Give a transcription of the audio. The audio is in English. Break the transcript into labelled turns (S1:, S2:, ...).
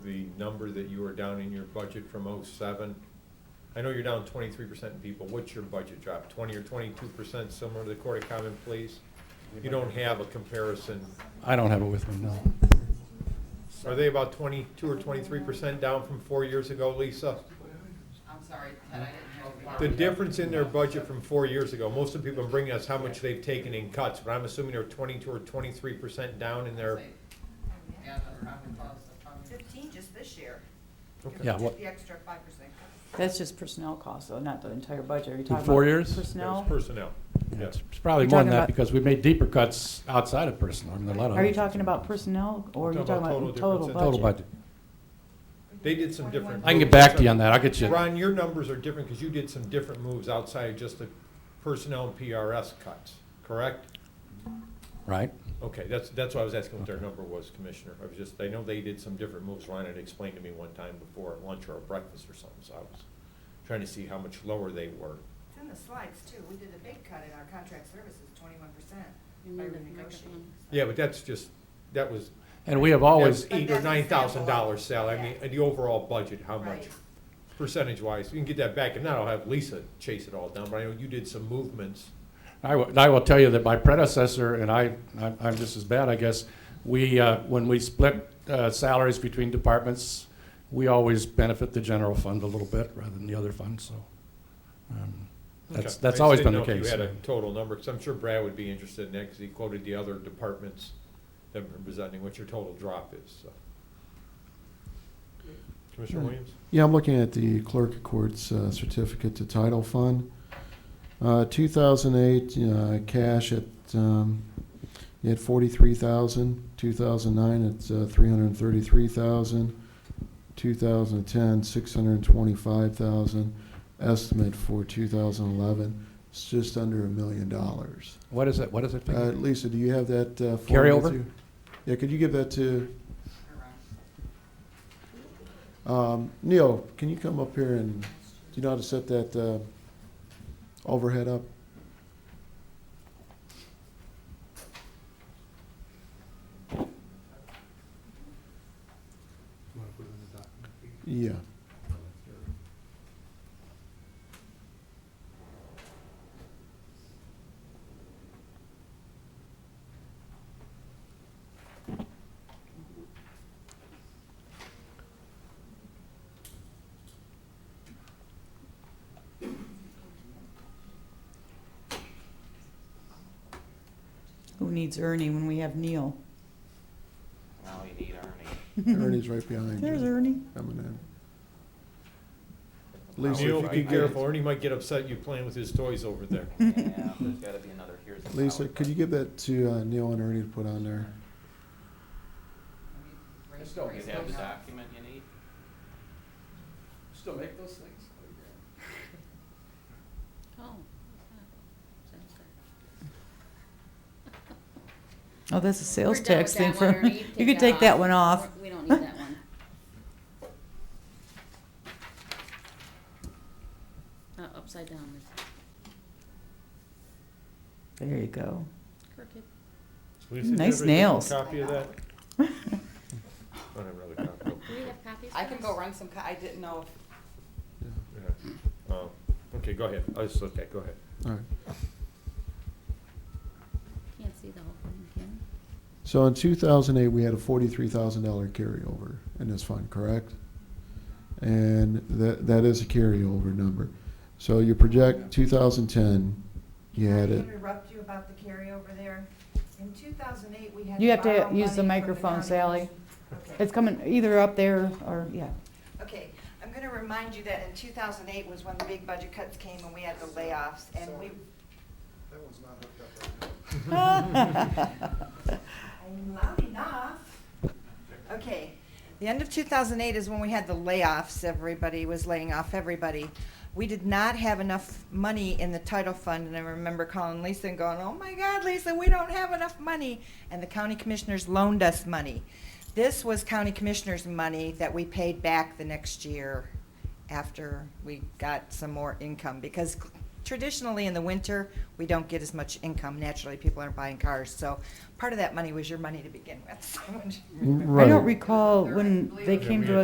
S1: number that you were down in your budget from oh-seven? I know you're down twenty-three percent in people, what's your budget drop, twenty or twenty-two percent, similar to the Court of Common Pleas? You don't have a comparison,
S2: I don't have it with me, no.
S1: are they about twenty-two or twenty-three percent down from four years ago, Lisa?
S3: I'm sorry, Ted, I didn't know.
S1: The difference in their budget from four years ago, most of the people are bringing us how much they've taken in cuts, but I'm assuming they're twenty-two or twenty-three percent down in their,
S3: Yeah, that's probably close, that's probably-
S4: Fifteen just this year.
S1: Okay.
S2: Yeah, what-
S4: The extra five percent.
S5: That's just personnel costs, though, not the entire budget. Are you
S2: In
S5: talking
S2: four
S5: about
S2: years?
S1: That's
S5: Personnel?
S1: personnel.
S2: Yeah,
S1: Yes.
S2: It's it's probably
S5: You're
S2: more than
S5: talking
S2: that
S5: about-
S2: because we made deeper cuts outside of personal. I mean, a lot of.
S5: Are you
S2: them.
S5: talking about personnel, or are you talking about total budget?
S2: Total budget.
S1: They did some different.
S2: I can get
S1: moves.
S2: back to you on that. I'll get you.
S1: Ron, your numbers are different because you did some different moves outside of just the personnel and PRS cuts, correct?
S2: Right?
S1: Okay, that's, that's why I was asking what their number was, Commissioner. I was just, I know they did some different moves. Ron had explained to me one time before at lunch or at breakfast or something, so I was trying to see how much lower they were.
S4: It's in the slides too. We did a big cut in our contract services, twenty-one percent
S6: You
S4: by
S6: need a
S4: renegotiating.
S6: microphone.
S1: Yeah, but that's just, that was,
S2: And we have
S1: that
S2: always,
S1: was eight or nine thousand dollars salary. I mean, and the overall budget, how much?
S4: Right.
S1: Percentage wise, you can get that back and now I'll have Lisa chase it all down, but I know you did some movements.
S2: I will, I will tell you that my predecessor, and I, I'm- I'm just as bad, I guess, we, uh, when we split uh, salaries between departments, we always benefit the general fund a little bit rather than the other fund, so. um, That's,
S1: Okay.
S2: that's
S1: I
S2: always
S1: just
S2: been the
S1: didn't know if
S2: case.
S1: You had a total number, because I'm sure Brad would be interested in that, because he quoted the other departments that were presenting what your total drop is, so. Commissioner
S7: Hmm.
S1: Williams?
S7: Yeah, I'm looking at the clerk of courts uh, certificate to title fund. Uh, 2008 uh, cash at um, you had 43,000. 2009 it's uh, 333,000. 2010 625,000. Estimate for 2011 it's just under a million dollars.
S2: What is it, what is it?
S7: Uh, Lisa, do you have that uh, form
S2: Carryover?
S7: with you? Yeah, could you give that to Um, Neil, can you come up here and, do you know how to set that, uh, overhead up? Yeah.
S5: Who needs Ernie when we have Neil?
S8: Now you need Ernie.
S7: Ernie's right behind
S5: There's
S7: you,
S5: Ernie.
S7: coming in. Lisa,
S1: Neil,
S7: if
S1: be
S7: you could get,
S1: careful, Ernie might get upset you playing with his toys over there.
S8: Yeah, there's gotta be another here's. a
S7: Lisa,
S8: salad
S7: could you give
S8: button.
S7: that to uh, Neil and Ernie to put on there?
S3: Raise-
S8: Do
S3: raise
S8: You have the
S3: those up.
S8: document you need?
S9: Still make those things?
S6: Oh. Sounds good.
S5: Oh, that's a sales
S6: We're done with
S5: tax thing
S6: that one,
S5: for,
S6: Ernie.
S5: you could take that one off.
S6: We're- We don't need that one. Uh, upside down, it's
S5: There you go.
S6: crooked.
S1: Lisa, did everybody
S5: Nice
S1: get a
S5: nails.
S1: Copy of that? I don't have another copy.
S6: Do we have copies?
S3: I
S6: for
S3: can
S6: us?
S3: go run some, co- I didn't know if
S1: Yeah. Um, Okay, go ahead, I just, okay, go ahead.
S7: All right.
S6: Can't see the whole thing, can you?
S7: So in 2008, we had a $43,000 carryover in this fund, correct? And that, that is a carryover number. So you project 2010, you had
S4: Can I
S7: it.
S4: Interrupt you about the carryover there. In two thousand eight, we had.
S5: You have to
S4: borrow
S5: use the
S4: money from
S5: microphone,
S4: county.
S5: Sally.
S4: Okay.
S5: It's coming either up there or, yeah.
S4: Okay, I'm gonna remind you that in two thousand eight was when the big budget cuts came and we had the layoffs and we,
S9: That one's not hooked up right now.
S4: I'm loud enough. Okay, the end of two thousand eight is when we had the layoffs, everybody was laying off everybody. We did not have enough money in the title fund, and I remember calling Lisa and going, oh my God, Lisa, we don't have enough money, and the county commissioners loaned us money. This was county commissioners' money that we paid back the next year after we got some more income, because traditionally in the winter, we don't get as much income, naturally, people aren't buying cars, so part of that money was your money to begin with, so.
S5: I
S7: Right.
S5: don't recall when they came to us.